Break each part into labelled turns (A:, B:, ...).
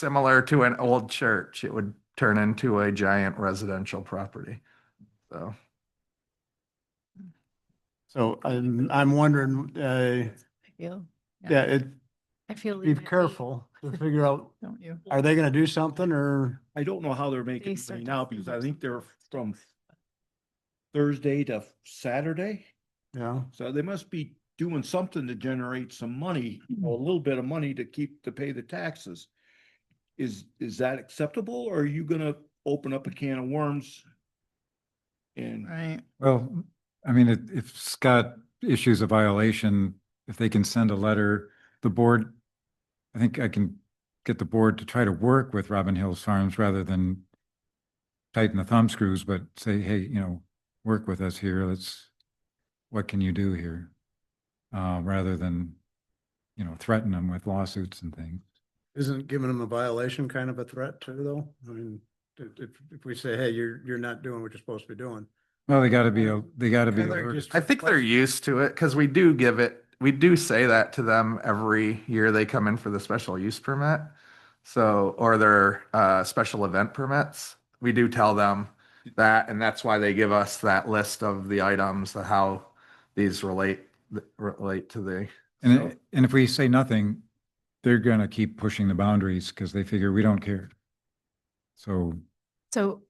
A: similar to an old church, it would turn into a giant residential property. So,
B: So I'm, I'm wondering, uh,
C: I feel, Yeah.
B: yeah, it,
C: I feel.
B: be
C: you might
B: careful to figure out,
C: Don't you?
B: are they gonna do something or?
D: I don't know how they're making
C: start
D: money
C: to
D: now
C: sell
D: because I
C: their
D: think they're
C: stuff.
D: from Thursday to Saturday.
B: Yeah,
D: So they must be doing something to generate some money,
C: Hmm.
D: a little bit of money to keep, to pay the taxes. Is, is that acceptable or are you gonna open up a can of worms? And
C: Right.
E: Well, I mean, if, if Scott issues a violation, if they can send a letter, the board, I think I can get the board to try to work with Robin Hills Farms rather than tighten the thumb screws, but say, hey, you know, work with us here. Let's, what can you do here? Uh, rather than, you know, threaten them with lawsuits and things.
B: isn't giving them a violation kind of a threat too, though? I mean, if, if, if we say, hey, you're, you're not doing what you're supposed to be doing.
E: Well, they gotta be, a- they gotta be.
B: And they're
E: alert.
B: just-
A: I think they're used to it because we do give it, we do say that to them every year they come in for the special use permit. So, or their uh, special event permits, we do tell them that, and that's why they give us that list of the items, the how these relate, relate to the.
E: And,
A: so-
E: i- and if we say nothing, they're gonna keep pushing the boundaries because they figure we don't care. So,
C: So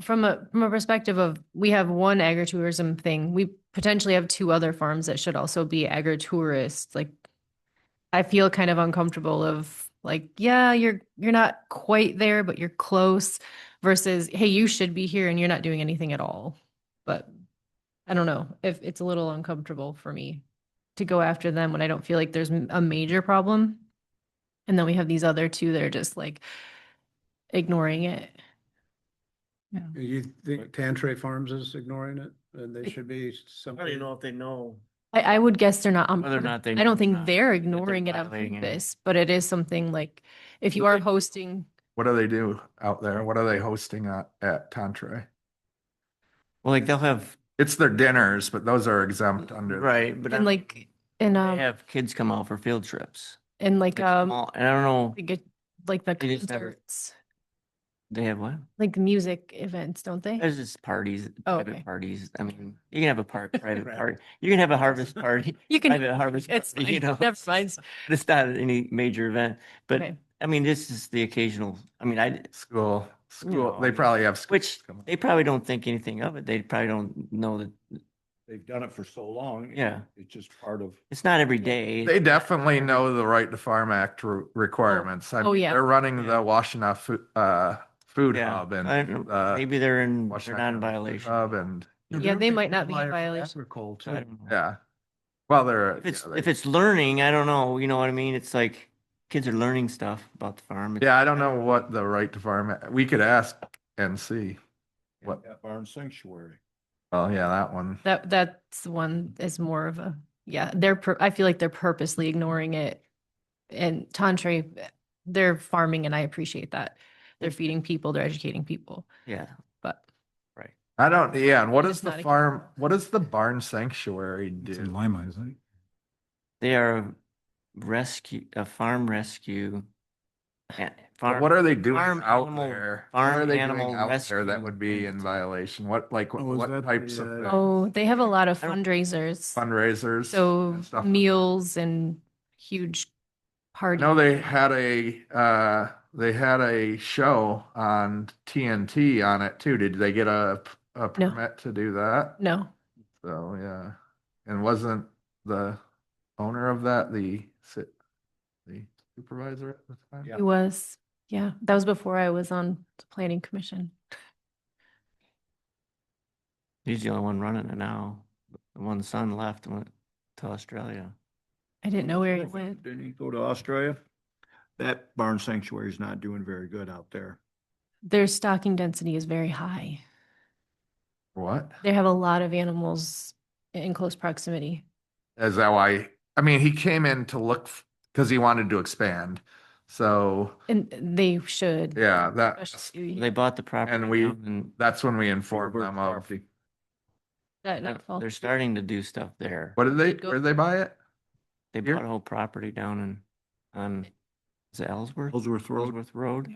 C: from a, from a perspective of, we have one agritourism thing, we potentially have two other farms that should also be agritourists, like I feel kind of uncomfortable of like, yeah, you're, you're not quite there, but you're close versus, hey, you should be here and you're not doing anything at all. But I don't know if it's a little uncomfortable for me to go after them when I don't feel like there's m- a major problem. And then we have these other two that are just like ignoring it.
B: You think Tantray Farms is ignoring it and they should be
F: I don't even
B: something?
F: know if they know.
C: I, I would guess they're not on.
F: Whether or Oh, not they
C: I
F: know
C: don't
F: or
C: think
F: not,
C: they're ignoring it on
F: violating it.
C: purpose, but it is something like, if you
F: Would
C: are
F: they-
C: hosting,
A: What do they do out there? What are they hosting at, at Tantray?
F: Well, like they'll have,
A: It's their dinners, but those are exempt under.
F: right, but
C: and
F: like
C: like, and,
F: they
C: um,
F: have kids come out for field trips.
C: and like,
F: Like,
C: um,
F: small- And I don't know,
C: like a- like the
F: they just never-
C: concerts,
F: they have what?
C: like music events, don't they?
F: There's just parties,
C: Oh,
F: private
C: okay.
F: parties. I mean, you can have a part, private
B: Right.
F: party. You can have a harvest party,
C: You can,
F: private harvest.
C: it's,
F: party, you
C: fine.
F: know,
C: never mind.
F: It's not any major event, but
C: Okay.
F: I mean, this is the occasional, I mean, I,
A: School, school,
F: No.
A: they probably have. schools
F: Which
A: coming.
F: they probably don't think anything of it. They probably don't know that,
D: they've done it for so long.
F: Yeah.
D: It's just part of.
F: it's not every day.
A: They definitely know the Right to Farm Act re- requirements. I
C: Oh,
A: mean,
C: yeah.
A: They're running
F: Yeah.
A: the Washington Food, uh, Food
F: Yeah,
A: Hub and.
F: I don't know.
A: uh,
F: Maybe they're in, they're
A: Washington
F: not in
A: Food
F: violation.
A: Hub and,
C: Yeah, they might not be in violation.
F: So I don't know.
A: yeah. Well, they're.
F: If it's,
A: yeah, they-
F: if it's learning, I don't know, you know what I mean? It's like, kids are learning stuff about the farm. It's-
A: Yeah, I don't know what the Right to Farm, Act- we could ask and see. What,
D: Yeah, Barn sanctuary.
A: oh yeah, that one.
C: That, that's the one is more of a, yeah, they're, pur- I feel like they're purposely ignoring it. And Tantray, they're farming and I appreciate that. They're feeding people, they're educating people,
F: Yeah,
C: but.
A: I don't, yeah, and what
C: But
A: does
C: it's
A: the
C: not a-
A: farm, what does the barn sanctuary
E: it's in
A: do?
E: Lima, isn't it?
F: they are a rescue, a farm rescue. a-
A: But
F: farm-
A: What are they doing
F: farm
A: out
F: animal-
A: there? What
F: farm
A: are they doing
F: animal
A: out there that
F: rescue
A: would be in
F: unit.
A: violation? What, like,
B: Oh, is that
A: what types
B: the,
A: of?
B: uh,
A: things?
C: Oh, they have a lot of
F: I don't-
C: fundraisers,
A: fundraisers.
C: Oh, so
A: and stuff.
C: meals and huge
A: I
C: parties.
A: know they had a, uh, they had a show on TNT on it too. Did they get a, p- a permit to do that?
C: No,
A: So, yeah. And wasn't the owner of that the, si- the supervisor at the time?
D: Yeah.
C: it was, yeah, that was before I was on the planning commission.
F: He's the only one running it now. The one son left and went to Australia.
C: I didn't know where
D: Yeah,
C: it went.
D: Didn't he go to Australia? That barn sanctuary is not doing very good out there.
C: Their stocking density is very high.
A: What?
C: They have a lot of animals in close proximity.
A: Is that why? I mean, he came in to look because he wanted to expand. So,
C: And they should.
A: yeah, that,
C: especially
F: They bought the property.
A: And we-
F: now and
A: that's when we informed
D: Over
A: them of,
D: property.
C: that
F: they're-
C: nightfall.
F: uh, They're starting to do stuff there.
A: what did they,
C: Go-
A: where did they buy it?
F: They
A: Here?
F: bought a whole property down in, on Is it Ellsworth?
D: Ellsworth Road.
F: Ellsworth Road.